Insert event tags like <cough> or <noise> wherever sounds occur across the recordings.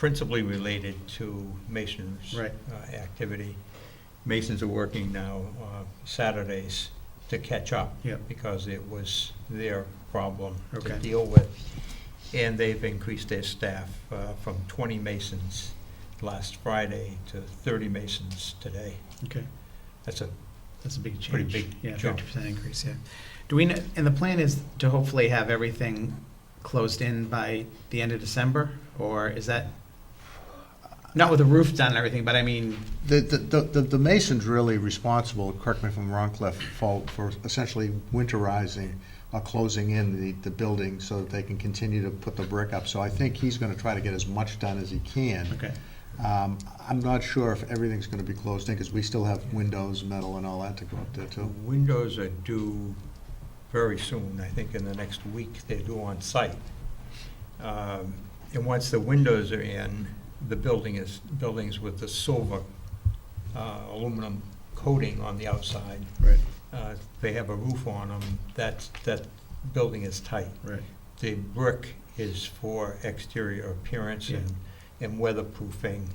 principally related to Mason's Right. uh, activity. Masons are working now uh, Saturdays to catch up. Yeah. Because it was their problem to Okay. deal with. And they've increased their staff uh, from 20 Masons last Friday to 30 Masons today. Okay, That's a, that's a big change. Pretty big Yeah, jump. fifty percent increase, yeah. Do we, kn- and the plan is to hopefully have everything closed in by the end of December? Or is that, not with the roof done and everything, but I mean, The, the, the- the mason's really responsible, correct me if I'm wrong, Cliff, for, for essentially winterizing or closing in the, the building so that they can continue to put the brick up. So I think he's gonna try to get as much done as he can. okay, Um, I'm not sure if everything's gonna be closed in, because we still have windows, metal and all that to go up there the too. windows are due very soon, I think in the next week they're due on site. Um, And once the windows are in, the building is, buildings with the silver uh, aluminum coating on the outside, right, uh, they have a roof on them, that's, that building is tight. right, The brick is for exterior appearance Yeah. and, and weatherproofing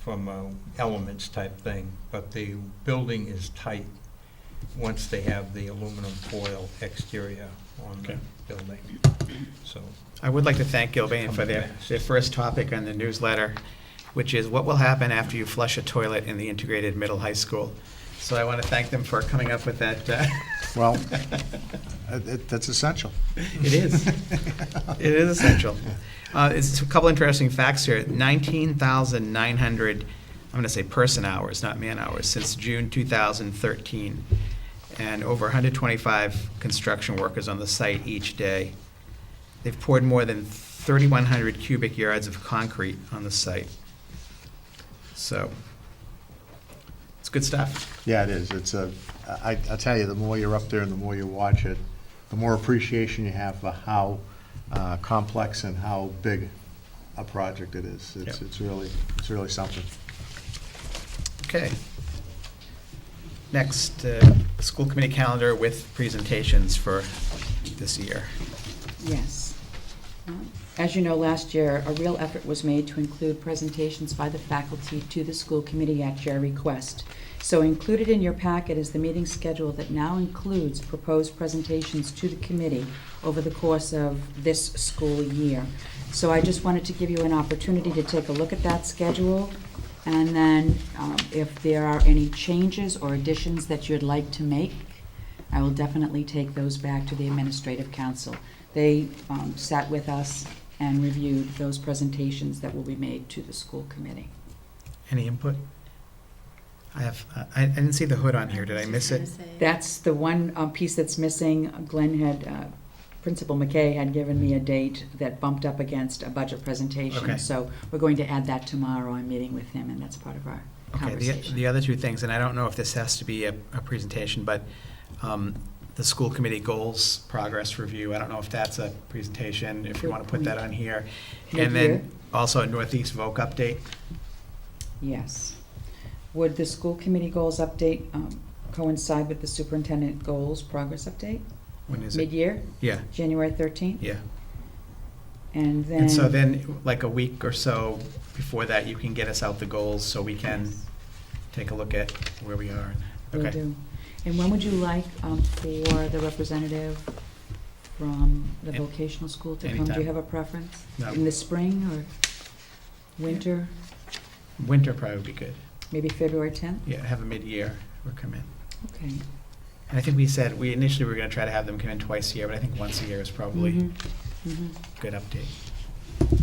from uh, elements type thing, but the building is tight once they have the aluminum foil exterior on the Okay. building, so. I would like to thank Gilbane for their, Coming fast. their first topic on the newsletter, which is what will happen after you flush a toilet in the integrated middle high school. So I want to thank them for coming up with that. uh, Well, <laughs> uh, it, that's essential. It is. It is essential. Uh, It's a couple interesting facts here. 19,900, I'm going to say person hours, not man hours, since June 2013, and over 125 construction workers on the site each day. They've poured more than 3,100 cubic yards of concrete on the site. So, it's good stuff. Yeah, it is. It's a, I, I tell you, the more you're up there and the more you watch it, the more appreciation you have for how uh, complex and how big a project it is. It's, Yep. it's really, it's really something. Okay. Next, uh, school committee calendar with presentations for this year. Yes. As you know, last year, a real effort was made to include presentations by the faculty to the school committee at your request. So included in your packet is the meeting schedule that now includes proposed presentations to the committee over the course of this school year. So I just wanted to give you an opportunity to take a look at that schedule, and then um, if there are any changes or additions that you'd like to make, I will definitely take those back to the administrative council. They um, sat with us and reviewed those presentations that will be made to the school committee. Any input? I have, uh, I, I didn't see the hood on here, did I miss it? That's the one um, piece that's missing. Glenn had, uh, Principal McKay had given me a date that bumped up against a budget Okay. presentation. So we're going to add that tomorrow. I'm meeting with him, and that's part of our Okay, the, conversation. the other two things, and I don't know if this has to be a, a presentation, but, um, the school committee goals progress review, I don't know if that's a presentation, if you Good wanna put that on here. Mid-year. And then also a Northeast Voc update, Yes. Would the school committee goals update um, coincide with the superintendent goals progress update? when is it? Mid-year, Yeah, January 13th? yeah. And then. And so then, like a week or so before that, you can get us out the goals so we can Yes. take a look at where we are. Will Okay, do. And when would you like um, for the representative from the An- vocational school to come? Do anytime. you have a preference? No. In the spring or winter, winter probably would be good. maybe February 10th? Yeah, have a mid-year or come in. Okay. And I think we said, we initially were gonna try to have them come in twice a year, but I think once a year is probably Mhm. a Mhm. good update.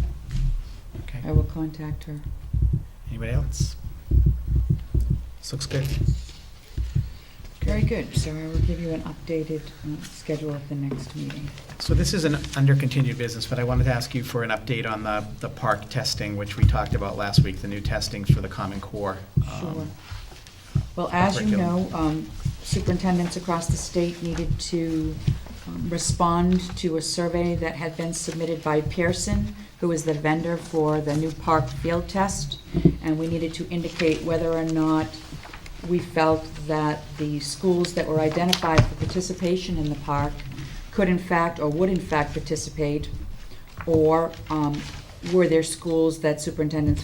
Okay, I will contact her. anybody else? This looks good. Very good. So I will give you an updated uh, schedule of the next meeting. So this is an under continued business, but I wanted to ask you for an update on the, the park testing, which we talked about last week, the new testing for the Common Core. um, Sure. Well, as you curriculum. know, um, superintendents across the state needed to um, respond to a survey that had been submitted by Pearson, who is the vendor for the new park field test, and we needed to indicate whether or not we felt that the schools that were identified for participation in the park could in fact, or would in fact participate, or um, were there schools that superintendents